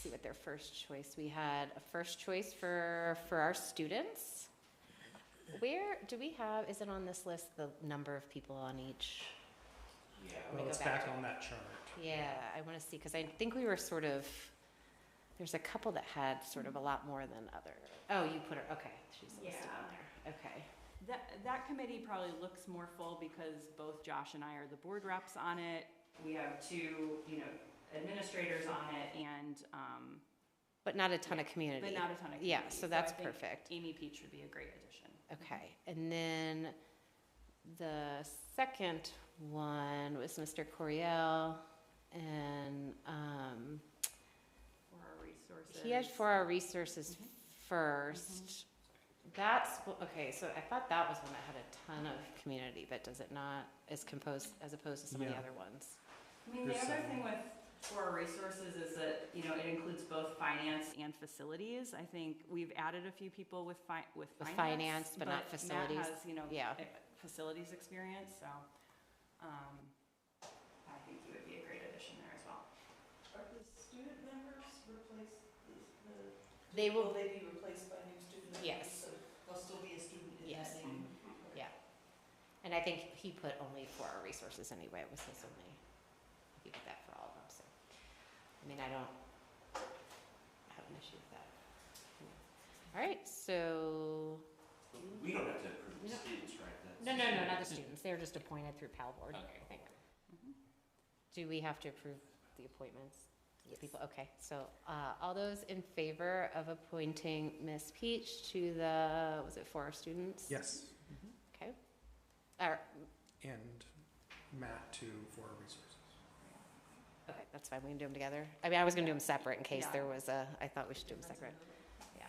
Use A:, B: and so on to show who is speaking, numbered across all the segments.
A: see what their first choice, we had a first choice for, for our students. Where, do we have, is it on this list, the number of people on each?
B: Yeah,
A: Let me
B: well,
A: go
B: it's
A: back
B: back
A: to-
B: on that chart.
A: Yeah, I want to see, because I think we were sort of, there's a couple that had sort of a lot more than other. Oh, you put her, okay, she's listed on there, okay.
C: That, that committee probably looks more full because both Josh and I are the board reps on it. We have two, you know, administrators on it and, um,
A: But not a ton of community.
C: but not a ton of.
A: Yeah,
C: committees.
A: so that's
C: I think
A: perfect.
C: Amy Peach would be a great addition.
A: Okay, and then the second one was Mr. Coriel, and um,
C: For our resources.
A: he had for our resources
C: Mhm.
A: first. That's, wh- okay, so I thought that was one that had a ton of community, but does it not, is composed, as opposed to some of the
B: Yeah.
A: other ones?
C: I mean, the
B: There's
C: other
B: some-
C: thing with, for our resources is that, you know, it includes both finance and facilities. I think we've added a few people with fi- with
A: With
C: finance.
A: finance, but not facilities.
C: Matt has, you know,
A: Yeah.
C: e- facilities experience, so, um, I think he would be a great addition there as well.
D: Are the student members replaced, the, the-
A: They
D: will
A: will,
D: they be replaced by new student members?
A: Yes.
D: So There'll still be a student in
A: Yes. Mm-hmm.
D: that name?
A: and I think he put only for our resources anyway, it was his only, he did that for all of them, so. I mean, I don't have an issue with that. All right, so,
B: We don't have to approve
A: the No.
B: students, right?
A: no, no, no, not the students, they're just appointed through PAL board.
B: Okay.
A: I think.
C: Mm-hmm.
A: Do we have to approve the appointments? The People, okay, so, uh, all those in favor of appointing Miss Peach to the, was it for our students?
B: Yes,
A: Okay. Or,
B: and Matt too for our resources.
A: Okay, that's fine, we can do them together. I mean, I was gonna do them separate in case
C: Yeah.
A: there was a, I thought we should do them
D: That's
A: separate.
D: another-
A: Yeah,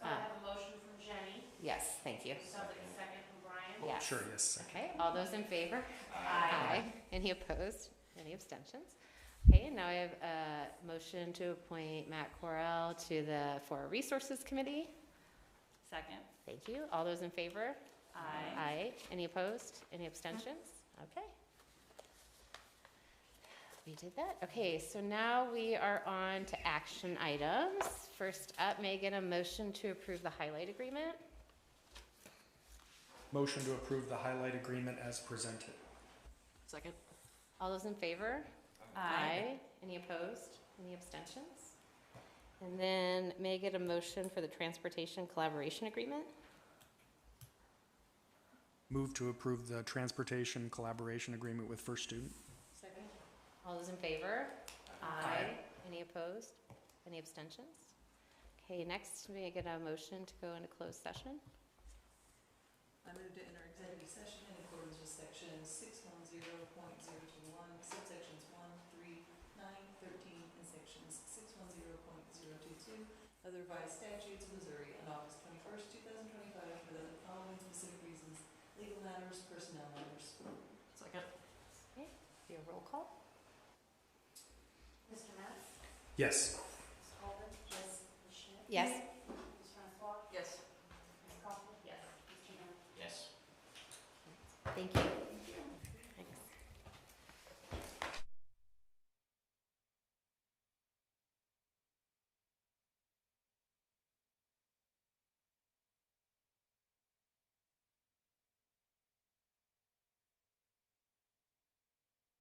E: So
A: uh,
E: I have a motion from Jenny,
A: yes, thank you.
E: somebody second from Brian.
A: Yes.
B: Sure, yes, second.
A: Okay, all those in favor?
E: Aye.
A: Any opposed? Any abstentions? Okay, and now I have a motion to appoint Matt Correll to the For Resources Committee.
C: Second.
A: Thank you. All those in favor?
C: Aye.
A: Aye. Any opposed? Any abstentions? Okay. We did that. Okay, so now we are on to action items. First up, Megan, a motion to approve the highlight agreement.
B: Motion to approve the highlight agreement as presented.
D: Second.
A: All those in favor? Any opposed? Any abstentions? And then may I get a motion for the transportation collaboration agreement?
B: Move to approve the transportation collaboration agreement with First Student.
E: Second.
A: All those in favor?
B: Aye.
A: Any opposed? Any abstentions? Okay, next, may I get a motion to go into closed session?
D: I move to enter executive session in accordance with section six one zero point zero two one, subsections one, three, nine, thirteen, and sections six one zero point zero two two of the revised statutes of Missouri on August twenty-first, two thousand twenty-five, for the following specific reasons, legal matters, personnel matters. Second.
A: Be a roll call?
E: Mr. Matt?
B: Yes.
E: Ms. Colvin? Yes. Ms. Schmidt?
A: Yes.
E: Ms. Francois?
D: Yes.
E: Ms. Coughlin? Yes. Mr. Matt?
B: Yes.
A: Thank you.